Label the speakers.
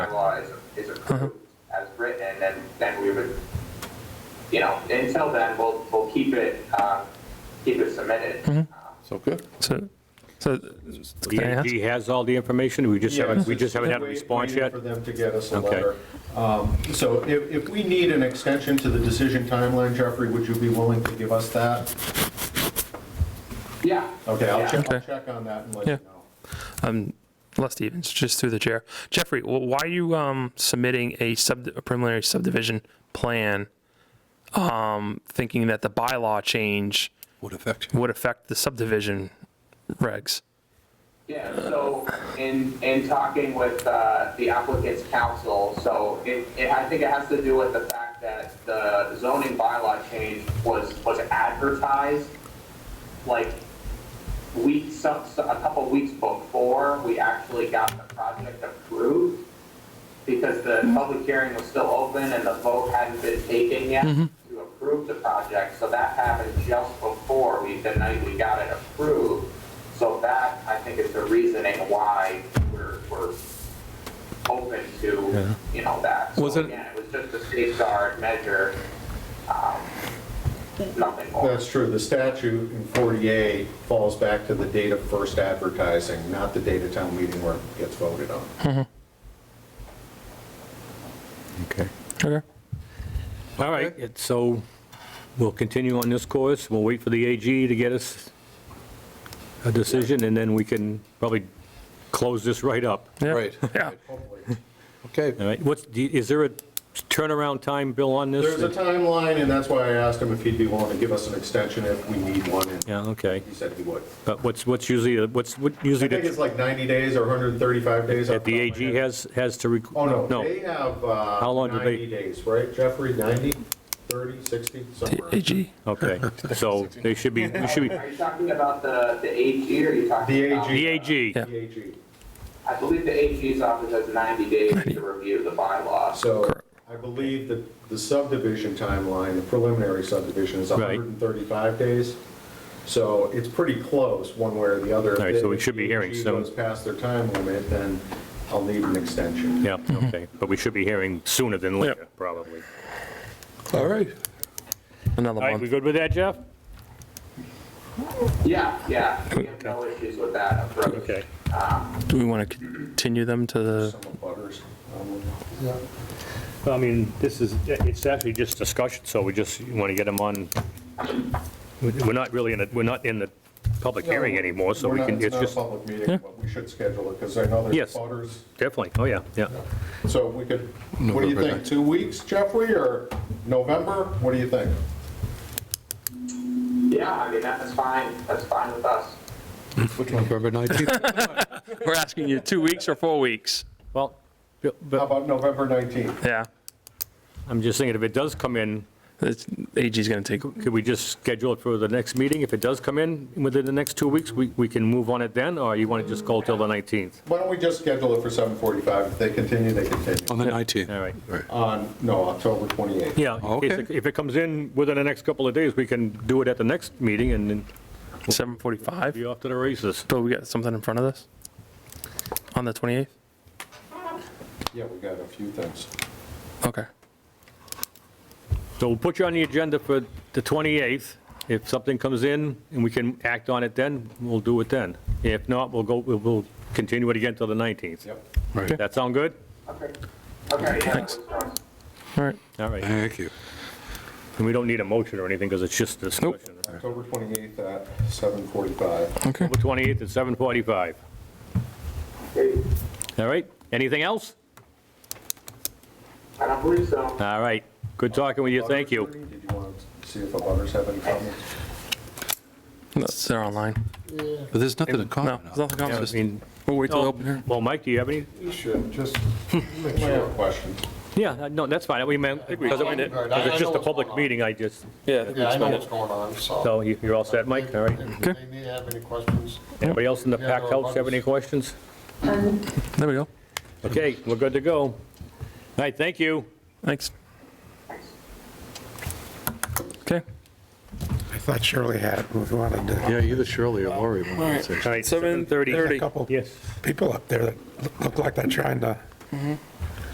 Speaker 1: law is, is approved as written, then, then we would, you know, until then, we'll, we'll keep it, um, keep it submitted. Um,
Speaker 2: So good.
Speaker 3: So, so
Speaker 4: He
Speaker 3: can I ask?
Speaker 4: he has all the information, we just haven't, we
Speaker 5: Yes,
Speaker 4: just haven't had a
Speaker 5: wait-
Speaker 4: response
Speaker 5: waiting
Speaker 4: yet?
Speaker 5: for them to get us a
Speaker 4: Okay.
Speaker 5: letter. Um, So if, if we need an extension to the decision timeline, Jeffrey, would you be willing to give us that?
Speaker 1: Yeah.
Speaker 5: Okay, I'll
Speaker 1: yeah.
Speaker 5: check, I'll
Speaker 3: Okay.
Speaker 5: check on that and let you
Speaker 3: Yeah.
Speaker 5: know.
Speaker 3: Les Stevens, just through the chair. Jeffrey, wh- why are you um, submitting a sub a preliminary subdivision plan, um, thinking that the bylaw change
Speaker 2: Would affect.
Speaker 3: would affect the subdivision regs?
Speaker 1: Yeah, so in, in talking with uh, the applicant's counsel, so it, it- I think it has to do with the fact that the zoning bylaw change was, was advertised like weeks, some- some- a couple weeks before we actually got the project approved because the
Speaker 3: Mm-hmm.
Speaker 1: public hearing was still open and the vote hadn't been taken yet
Speaker 3: Mm-hmm.
Speaker 1: to approve the project, so that happened just before we, the night we got it approved. So that, I think, is the reasoning why we're, we're open to, you know, that.
Speaker 3: Was
Speaker 1: So
Speaker 3: it-
Speaker 1: again, it was just a safeguard measure, um, nothing more.
Speaker 5: That's true, the statute in 48 falls back to the date of first advertising, not the date of town meeting where it gets voted on.
Speaker 4: Okay.
Speaker 3: Okay.
Speaker 4: All right, it- so we'll continue on this course, we'll wait for the AG to get us a decision, and then we can probably close this right up.
Speaker 3: Yeah.
Speaker 2: Right.
Speaker 3: Yeah.
Speaker 2: Okay.
Speaker 4: All right, what's, do you- is there a turnaround time, Bill, on this?
Speaker 5: There's a timeline, and that's why I asked him if he'd be willing to give us an extension if we need one, and
Speaker 4: Yeah, okay,
Speaker 5: he said he would.
Speaker 4: but what's, what's usually, what's what usually
Speaker 5: I think it's
Speaker 4: the-
Speaker 5: like 90 days or 135 days. off
Speaker 4: that the
Speaker 5: top of my
Speaker 4: AG
Speaker 5: head.
Speaker 4: has, has to? rec-
Speaker 5: Oh, no, they have uh,
Speaker 4: How long do they-
Speaker 5: 90 days, right, Jeffrey? 90, 30, 60, somewhere.
Speaker 3: AG.
Speaker 4: Okay, so they should be, we should be,
Speaker 1: Are you talking about the, the AG or are you talking
Speaker 5: The
Speaker 1: about?
Speaker 4: the AG,
Speaker 3: Yeah.
Speaker 5: The AG.
Speaker 1: I believe the AG's office has 90 days to review the bylaws.
Speaker 5: So I believe that the subdivision timeline, the preliminary subdivision is
Speaker 4: Right.
Speaker 5: 135 days. So it's pretty close, one way or the other.
Speaker 4: All right, so we
Speaker 5: If
Speaker 4: should be
Speaker 5: the
Speaker 4: hearing
Speaker 5: AG
Speaker 4: soon.
Speaker 5: goes past their time limit, then I'll need an extension.
Speaker 4: yeah, okay, but we should be hearing sooner than later, probably.
Speaker 2: All right.
Speaker 3: Another
Speaker 4: All right, we
Speaker 3: month.
Speaker 4: good with that, Jeff?
Speaker 1: Yeah, yeah, we have no issues with that approach.
Speaker 4: Okay.
Speaker 3: Do we want to continue them to the?
Speaker 5: Some butters. um,
Speaker 4: I mean, this is, it's actually just discussion, so we just want to get them on, we're not really in, a- we're not in the public hearing anymore, so
Speaker 5: We're
Speaker 4: we
Speaker 5: not-
Speaker 4: can, it's
Speaker 5: not a
Speaker 4: just,
Speaker 5: public meeting, but we should schedule it, because I know there's
Speaker 4: Yes.
Speaker 5: butters.
Speaker 4: definitely, oh, yeah, yeah.
Speaker 5: So we could, what do you
Speaker 2: November
Speaker 5: think,
Speaker 2: ninth.
Speaker 5: two weeks, Jeffrey, or November? What do you think?
Speaker 1: Yeah, I mean, that's fine, that's fine with us.
Speaker 2: November 19th.
Speaker 3: We're asking you two weeks or four weeks.
Speaker 4: Well,
Speaker 5: How
Speaker 4: but
Speaker 5: about November 19th?
Speaker 3: Yeah.
Speaker 4: I'm just thinking, if it does come in,
Speaker 3: It's, AG's going to take.
Speaker 4: could we just schedule it for the next meeting? If it does come in within the next two weeks, we, we can move on it then, or you want to just go till the 19th?
Speaker 5: Why don't we just schedule it for 7:45? If they continue, they
Speaker 2: On
Speaker 5: continue.
Speaker 2: the
Speaker 4: All
Speaker 2: 19th.
Speaker 4: right.
Speaker 5: On, no, October 28th.
Speaker 4: Yeah, in case it-
Speaker 2: Okay.
Speaker 4: if it comes in within the next couple of days, we can do it at the next meeting and then
Speaker 3: 7:45.
Speaker 4: be off to the races.
Speaker 3: Bill, we got something in front of us on the 28th.
Speaker 5: Yeah, we got a few things.
Speaker 3: Okay.
Speaker 4: So we'll put you on the agenda for the 28th. If something comes in and we can act on it then, we'll do it then. If not, we'll go, we'll- we'll continue it again till the 19th.
Speaker 5: Yep.
Speaker 2: Right.
Speaker 4: That sound good?
Speaker 1: Okay, okay, yeah.
Speaker 3: Thanks.
Speaker 1: that's-
Speaker 3: All right.
Speaker 4: All right.
Speaker 2: Thank you.
Speaker 4: And we don't need a motion or anything because it's just discussion.
Speaker 5: October 28th at 7:45.
Speaker 3: Okay.
Speaker 4: October 28th at 7:45.
Speaker 1: okay.
Speaker 4: All right? Anything else?
Speaker 1: I don't believe so.
Speaker 4: All right. Good talking with you. Thank you.
Speaker 5: Did you want to see if the butters have any comments?
Speaker 3: It's- They're online.
Speaker 2: But there's nothing to
Speaker 3: No,
Speaker 2: comment
Speaker 3: there's
Speaker 2: on.
Speaker 3: nothing else.
Speaker 4: I mean,
Speaker 3: We'll wait till the
Speaker 4: oh,
Speaker 3: open hearing.
Speaker 4: Well, Mike, do you have any?
Speaker 6: You should, just
Speaker 5: I
Speaker 6: make
Speaker 5: have
Speaker 6: sure.
Speaker 5: a question.
Speaker 4: Yeah, no, that's fine. We meant, because it- because it's just a public meeting, I just,
Speaker 6: Yeah, I know what's going on, so.
Speaker 4: so you- you're all set, Mike? All right.
Speaker 6: If if they need to have any questions,
Speaker 4: Anybody else in the packed house have any questions?
Speaker 3: There we go.
Speaker 4: Okay, we're good to go. All right, thank you.
Speaker 3: Thanks. Okay.
Speaker 6: I thought Shirley had it, we wanted to.
Speaker 2: Yeah, either Shirley or Lori. would want to say.
Speaker 4: All right,
Speaker 6: There's a
Speaker 4: 7:30.
Speaker 6: couple
Speaker 4: Yes.
Speaker 6: people up there that look like they're trying to